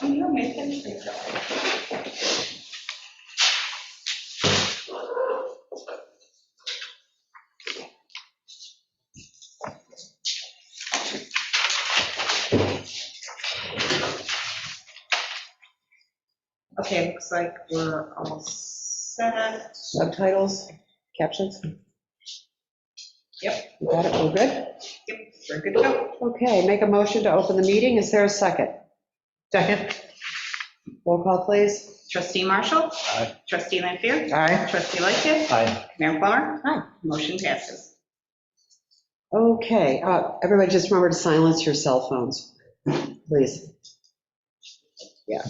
Oh, you don't make them free though. Okay, looks like we're almost set. subtitles, captions? Yep. You got it, we're good? Yep, we're good to go. Okay, make a motion to open the meeting, is there a second? Second. Roll call, please. Trustee Marshall? Aye. Trustee Lanfair? Aye. Trustee Lightgev? Aye. Mayor Plummer? Aye. Motion passes. Okay, uh, everybody just remember to silence your cell phones, please. Yeah.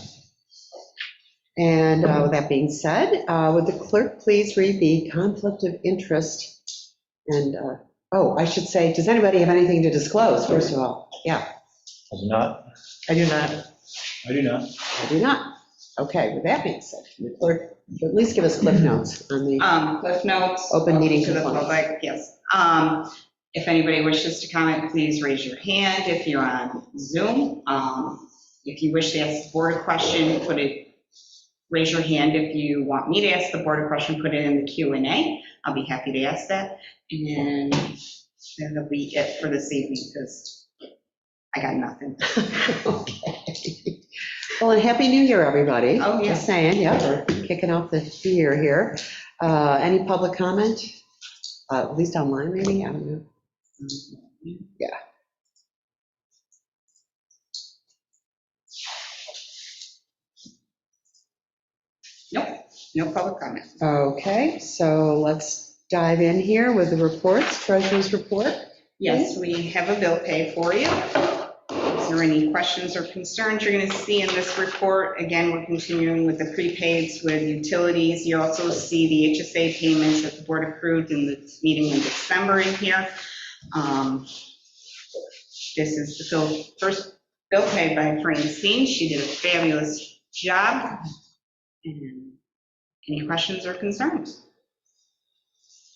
And uh, with that being said, uh, would the clerk please read the conflict of interest? And, uh, oh, I should say, does anybody have anything to disclose, first of all? Yeah, I do not. I do not. I do not. I do not. Okay, with that being said, can the clerk at least give us cliff notes on the, Um, Cliff Notes. Open meeting To the compliance. public, yes. Um, if anybody wishes to comment, please raise your hand if you're on Zoom. Um, if you wish to ask the board a question, put it, raise your hand if you want me to ask the board a question, put it in the Q and A. I'll be happy to ask that. And then that'll be it for this evening because I got nothing. Uh-huh. okay. Well, and Happy New Year, everybody. Oh, yeah. Just saying, yeah, we're kicking off the year here. Uh, Any public comment? Uh, At least online, maybe, I don't know. Nope, no public comment. Okay, so let's dive in here with the reports, treasurer's report. Yes, we have a bill pay for you. Is there any questions or concerns you're going to see in this report? Again, we're continuing with the prepaids with utilities. You also see the HSA payments that the board approved in the meeting in December in here. Um, This is the bill- first bill pay by Francine. She did a fabulous job. And Any questions or concerns?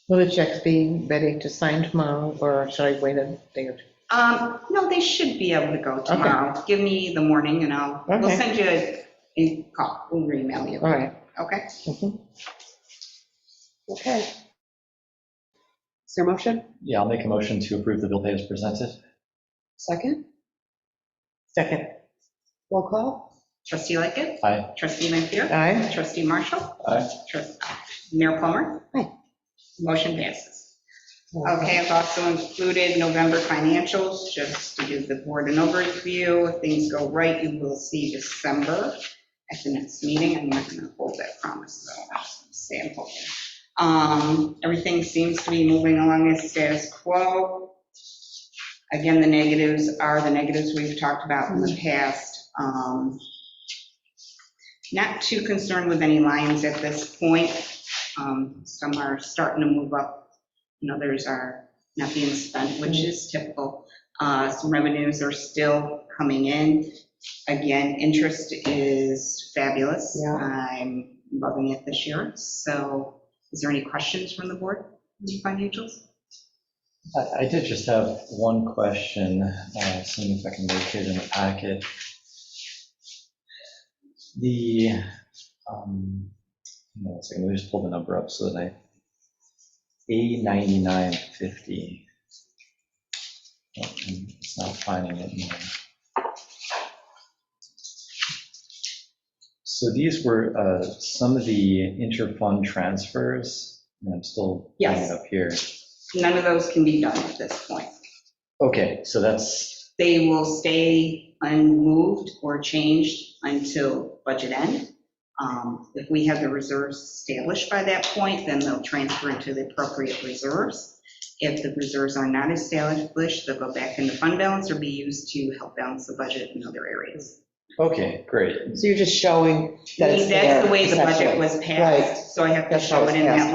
Will the checks be ready to sign tomorrow, or should I wait a day or two? Um, no, they should be able to go tomorrow. Give me the morning and I'll, we'll Okay. send you a- a call, we'll email you, All right. okay? Mhm. Mm-hmm. Okay. Is there a motion? Yeah, I'll make a motion to approve the bill pay as presented. Second? Second. Roll call? Trustee Lickett, Aye. trustee Lampier, Aye. trustee Marshall, Aye. trustee, Mayor Plummer. Aye. Motion Motion passes. Okay, I've also included November financials, just to give the board an overview. If things go right, you will see December at the next meeting. I'm not going to hold that promise, though. Stay and hold it. Um, Everything seems to be moving along as status quo. Again, the negatives are the negatives we've talked about in the past. Um, Not too concerned with any lines at this point. Um, Some are starting to move up and others are not being spent, which is typical. Uh, Some revenues are still coming in. Again, interest is fabulous. Yeah. I'm loving it this year. So is there any questions from the board on the financials? I I did just have one question, uh, seeing if I can locate it in the packet. The, um, hang on one second, let me just pull the number up so that I, A9950. Oh, and It's not finding it. in there. So these were uh, some of the inter-fund transfers, and I'm still pulling Yes. it up here. None of those can be done at this point. Okay, so that's, They will stay unmoved or changed until budget end. Um, If we have the reserves established by that point, then they'll transfer into the appropriate reserves. If the reserves are not established, they'll go back into fund balance or be used to help balance the budget in other areas. okay, great. So you're just showing that That's the it's there, way the essentially. budget was Right. passed, so I have to That's how show it's it in that passed.